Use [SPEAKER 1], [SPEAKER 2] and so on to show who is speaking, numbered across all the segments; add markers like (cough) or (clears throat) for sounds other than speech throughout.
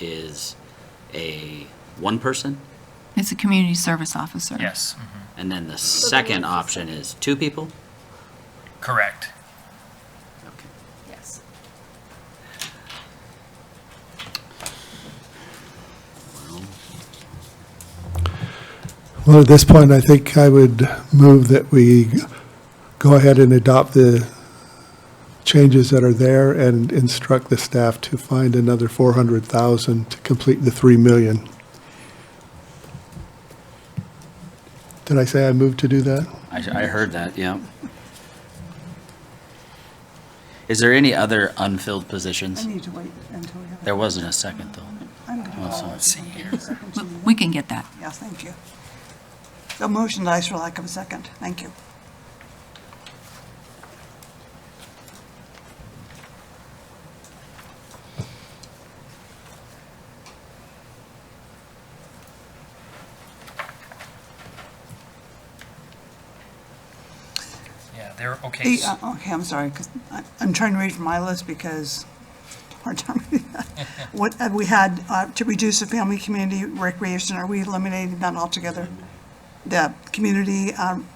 [SPEAKER 1] is a one person,
[SPEAKER 2] It's a community service officer.
[SPEAKER 3] Yes,
[SPEAKER 1] and then the second option is two people?
[SPEAKER 3] correct.
[SPEAKER 1] Okay.
[SPEAKER 4] Yes.
[SPEAKER 5] Well, at this point, I think I would move that we go ahead and adopt the changes that are there and instruct the staff to find another 400,000 to complete the 3 million. Did I say I moved to do that?
[SPEAKER 1] I, I heard that, yeah. Is there any other unfilled positions?
[SPEAKER 6] I need to wait until we have.
[SPEAKER 1] There wasn't a second, though.
[SPEAKER 6] I'm going to
[SPEAKER 1] Well, so
[SPEAKER 6] call.
[SPEAKER 1] let's see
[SPEAKER 6] here.
[SPEAKER 2] But (laughs) We can get that.
[SPEAKER 6] Yes, thank you. The motion dies for lack of a second. Thank you.
[SPEAKER 3] Yeah, they're, okay.
[SPEAKER 6] The, uh, Okay, I'm sorry, 'cause I- I'm trying to read from my list because, (laughs) hard time. reading that. What, have we had, uh, to reduce the family community recreation, are we eliminating that altogether? The community, um,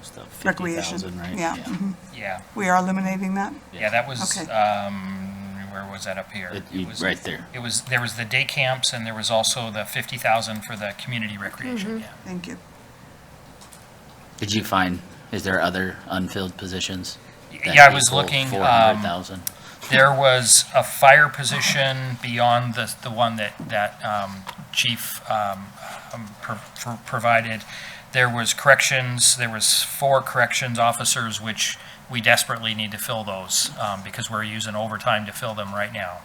[SPEAKER 1] It's the
[SPEAKER 6] Recreation,
[SPEAKER 1] 50,000, right?
[SPEAKER 6] yeah, mhm.
[SPEAKER 3] Yeah,
[SPEAKER 6] we are eliminating that?
[SPEAKER 3] yeah, that was,
[SPEAKER 6] Okay.
[SPEAKER 3] um, where was that up here?
[SPEAKER 1] It- you-
[SPEAKER 3] It was-
[SPEAKER 1] right there.
[SPEAKER 3] It was, there was the day camps and there was also the 50,000 for the community recreation, yeah.
[SPEAKER 6] Thank you.
[SPEAKER 1] Did you find, is there other unfilled positions? that
[SPEAKER 3] Yeah, I was
[SPEAKER 1] equal
[SPEAKER 3] looking, um,
[SPEAKER 1] 400,000?
[SPEAKER 3] There was a fire position beyond the, the one that, that um, Chief um, um, pro- pro- provided. There was corrections, there was four corrections officers, which we desperately need to fill those um, because we're using overtime to fill them right now.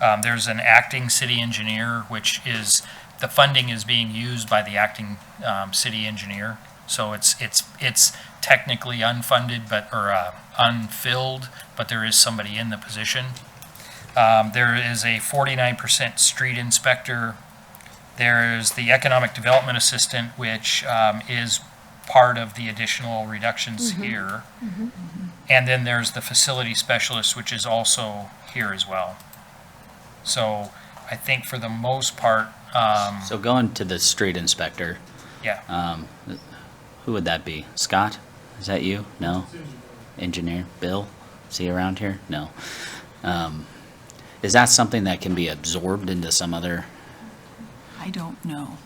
[SPEAKER 3] Um, There's an acting city engineer, which is, the funding is being used by the acting um, city engineer. So it's, it's, it's technically unfunded, but, or uh, unfilled, but there is somebody in the position. Um, There is a 49% street inspector. There is the economic development assistant, which um, is part of the additional reductions here. And then there's the facility specialist, which is also here as well. So I think for the most part, um,
[SPEAKER 1] So going to the street inspector,
[SPEAKER 3] yeah,
[SPEAKER 1] um, who would that be? Scott? Is that you? No? Engineer? Bill? Is he around here? No. Um, is that something that can be absorbed into some other?
[SPEAKER 2] I don't know.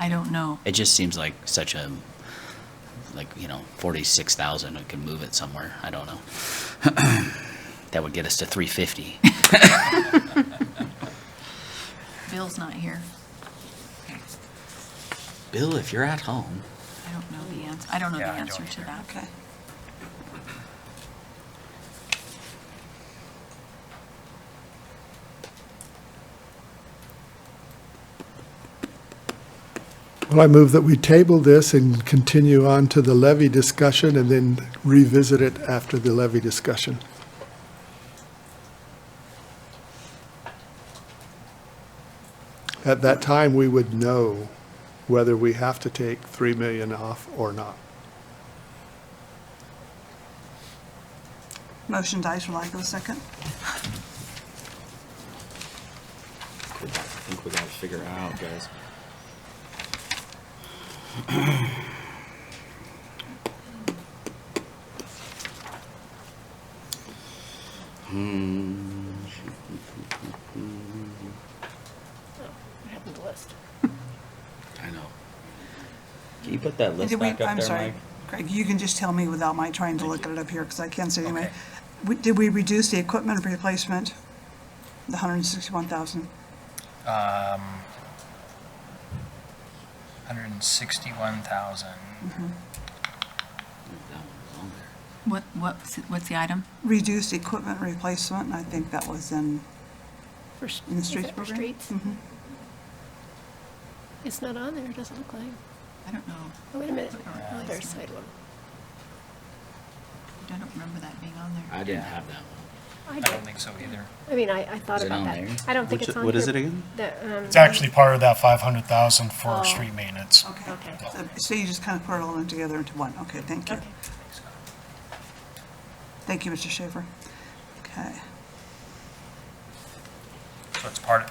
[SPEAKER 2] I don't know.
[SPEAKER 1] It just seems like such a, like, you know, forty-six thousand, it can move it somewhere, I don't know. (clears throat) That would get us to three fifty. (laughs)
[SPEAKER 2] Bill's not here.
[SPEAKER 1] Bill, if you're at home,
[SPEAKER 2] I don't know the answer. I don't know the
[SPEAKER 3] Yeah, I don't
[SPEAKER 2] answer to
[SPEAKER 3] either.
[SPEAKER 2] that.
[SPEAKER 6] Okay.
[SPEAKER 5] Well, I move that we table this and continue on to the levy discussion and then revisit it after the levy discussion. At that time, we would know whether we have to take 3 million off or not.
[SPEAKER 6] Motion dies for lack of a second.
[SPEAKER 7] I think we gotta figure it out, guys.
[SPEAKER 1] Mm,
[SPEAKER 4] Happened to list.
[SPEAKER 1] I know. Can you put that list
[SPEAKER 6] Did we-
[SPEAKER 1] back up
[SPEAKER 6] I'm
[SPEAKER 1] there,
[SPEAKER 6] sorry,
[SPEAKER 1] Mike?
[SPEAKER 6] Greg, you can just tell me without my trying to look at it up here, because I can't see it anyway.
[SPEAKER 3] Okay.
[SPEAKER 6] We- Did we reduce the equipment replacement, the 161,000?
[SPEAKER 3] um, hundred and sixty-one thousand.
[SPEAKER 1] That one's on there.
[SPEAKER 2] What, what's, what's the item?
[SPEAKER 6] Reduced equipment replacement, and I think that was in,
[SPEAKER 4] For s- Hmm.
[SPEAKER 6] in the
[SPEAKER 4] is
[SPEAKER 6] streets
[SPEAKER 4] that for
[SPEAKER 6] program?
[SPEAKER 4] streets?
[SPEAKER 1] Mm-hmm.
[SPEAKER 6] Mhm.
[SPEAKER 4] It's not on there, it doesn't look like.
[SPEAKER 2] I don't know.
[SPEAKER 4] Oh, wait a minute.
[SPEAKER 2] Yeah.
[SPEAKER 4] Oh, there's side one.
[SPEAKER 2] I don't remember that being on there.
[SPEAKER 1] I didn't have that one.
[SPEAKER 4] I
[SPEAKER 3] I don't
[SPEAKER 4] don't,
[SPEAKER 3] think so either.
[SPEAKER 4] I mean, I, I thought
[SPEAKER 1] Is it
[SPEAKER 4] about
[SPEAKER 1] on
[SPEAKER 4] that.
[SPEAKER 1] there?
[SPEAKER 4] I don't think
[SPEAKER 7] Which-
[SPEAKER 4] it's on
[SPEAKER 7] what is
[SPEAKER 4] here.
[SPEAKER 7] it again?
[SPEAKER 4] The, um,
[SPEAKER 8] It's actually part of that 500,000
[SPEAKER 4] Oh.
[SPEAKER 8] for street maintenance.
[SPEAKER 6] Okay.
[SPEAKER 4] Okay.
[SPEAKER 6] So- So you just kind of put it all in together into one, okay, thank you.
[SPEAKER 4] Okay.
[SPEAKER 6] Thank you, Mr. Schaefer. Okay.
[SPEAKER 3] So it's part,